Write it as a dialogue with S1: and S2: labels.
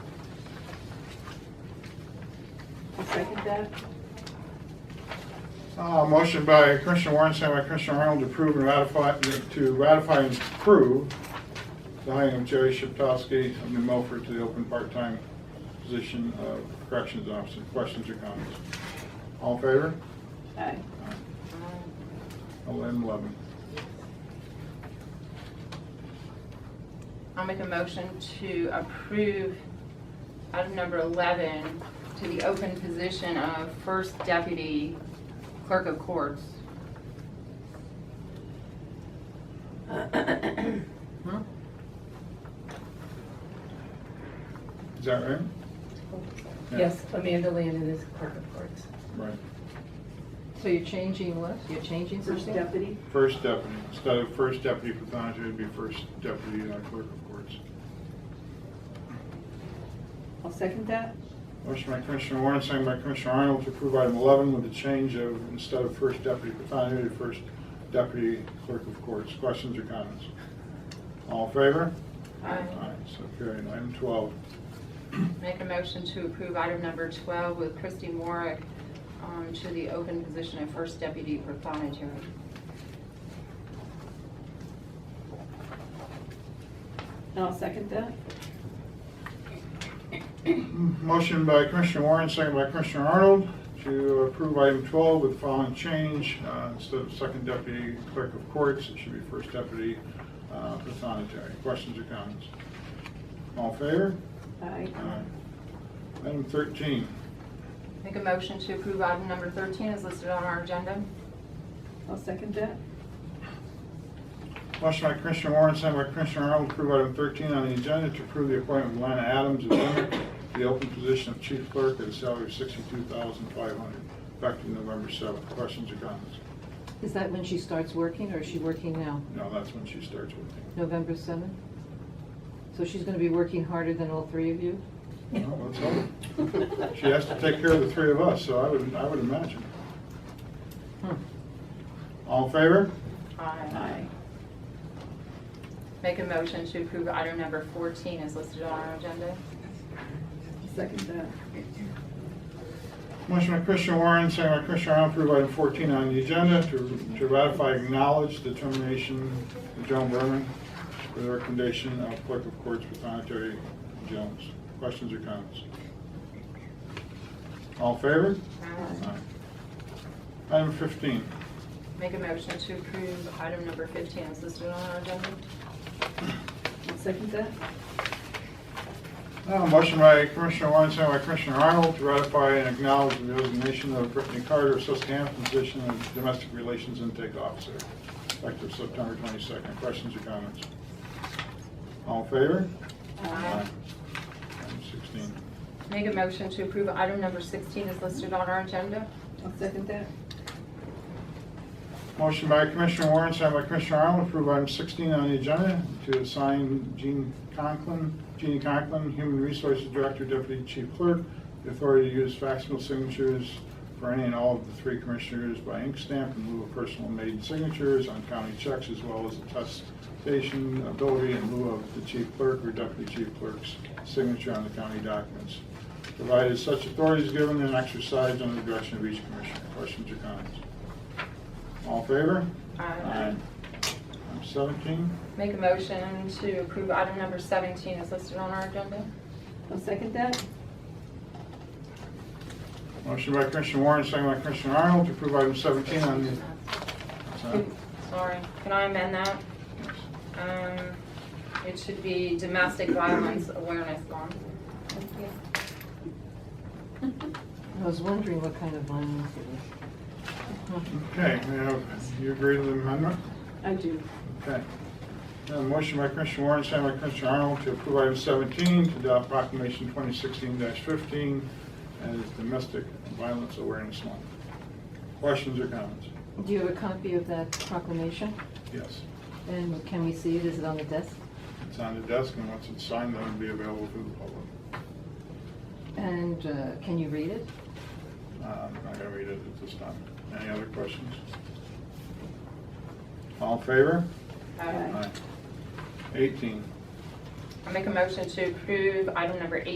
S1: second that.
S2: Uh, Motion by Commissioner Warren, second by Commissioner Arnold to approve and ratify, to ratify and approve the hiring of Jerry Shiptowski of New Milford to the open part-time position of corrections officer. Questions or comments? All in favor?
S1: Aye.
S2: Eleven, eleven.
S3: I'll make a motion to approve item number 11 to the open position of First Deputy Clerk of Courts.
S2: Is that right? Yeah.
S4: Yes, Amanda Landon is clerk of courts.
S2: Right.
S5: So you're changing what? You're changing
S1: First
S5: something?
S1: deputy,
S2: First deputy, instead of first deputy pathology, it'd be first deputy uh, clerk of courts.
S1: I'll second that.
S2: Motion by Commissioner Warren, second by Commissioner Arnold to approve item 11 with the change of, instead of first deputy pathology, to first deputy clerk of courts. Questions or comments? All in favor?
S3: Aye.
S2: So carried. Item 12.
S3: Make a motion to approve item number 12 with Christy Morick um, to the open position of First Deputy Prothonotary.
S1: And I'll second that.
S2: Motion by Commissioner Warren, second by Commissioner Arnold to approve item 12 with the following change. Uh, Instead of second deputy clerk of courts, it should be first deputy uh, pathology. Questions or comments? All in favor?
S1: Aye.
S2: Aye. Item 13.
S3: Make a motion to approve item number 13 as listed on our agenda.
S1: I'll second that.
S2: Motion by Commissioner Warren, sent by Commissioner Arnold, to approve item 13 on the agenda to approve the appointment of Lana Adams of Limerick to the open position of chief clerk at a salary of 62500 effective November 7th. Questions or comments?
S5: Is that when she starts working or is she working now?
S2: No, that's when she starts working.
S5: November 7th? So she's going to be working harder than all three of you?
S2: Well, let's hope. She has to take care of the three of us, so I would, I would imagine.
S5: Hmm.
S2: All in favor?
S1: Aye.
S3: Make a motion to approve item number 14 as listed on our agenda.
S1: Second that.
S2: Motion by Commissioner Warren, second by Commissioner Arnold, to approve item 14 on the agenda to to ratify, acknowledge the termination of Joan Berman for the recommendation of clerk of courts for sanitary Jones. Questions or comments? All in favor? Aye. Item 15.
S3: Make a motion to approve item number 15 as listed on our agenda.
S1: I'll second that.
S2: Uh, Motion by Commissioner Warren, second by Commissioner Arnold, to ratify and acknowledge the resignation of Brittany Carter, Susquehanna, from position of Domestic Relations Intake Officer, effective September 22nd. Questions or comments? All in favor?
S3: Aye.
S2: Item 16.
S3: Make a motion to approve item number 16 as listed on our agenda.
S1: I'll second that.
S2: Motion by Commissioner Warren, second by Commissioner Arnold, approve item 16 on the agenda to assign Jean Conklin, Jeannie Conklin, Human Resources Director, Deputy Chief Clerk, the authority to use facsimile signatures for any and all of the three commissioners by ink stamp in lieu of personal made signatures on county checks as well as attestation ability in lieu of the chief clerk or deputy chief clerk's signature on the county documents, provided such authority is given and exercised under the direction of each commissioner. Questions or comments? All in favor?
S3: Aye.
S2: Item 17.
S3: Make a motion to approve item number 17 as listed on our agenda.
S1: I'll second that.
S2: Motion by Commissioner Warren, second by Commissioner Arnold to approve item 17 on the... Sorry.
S3: Sorry, can I amend that? Um, It should be domestic violence awareness month.
S5: I was wondering what kind of violence it was.
S2: Okay, we have, you agree to the amendment?
S1: I do.
S2: Okay. Now, motion by Commissioner Warren, second by Commissioner Arnold to approve item 17 to adopt proclamation 2016-15 as Domestic Violence Awareness Month. Questions or comments?
S5: Do you have a copy of that proclamation?
S2: Yes.
S5: And can we see it? Is it on the desk?
S2: It's on the desk, and once it's signed, that'll be available to the public.
S5: And uh, can you read it?
S2: Uh, I'm not going to read it at this time. Any other questions? All in favor?
S3: Aye.
S2: Aye. 18.
S3: I make a motion to approve item number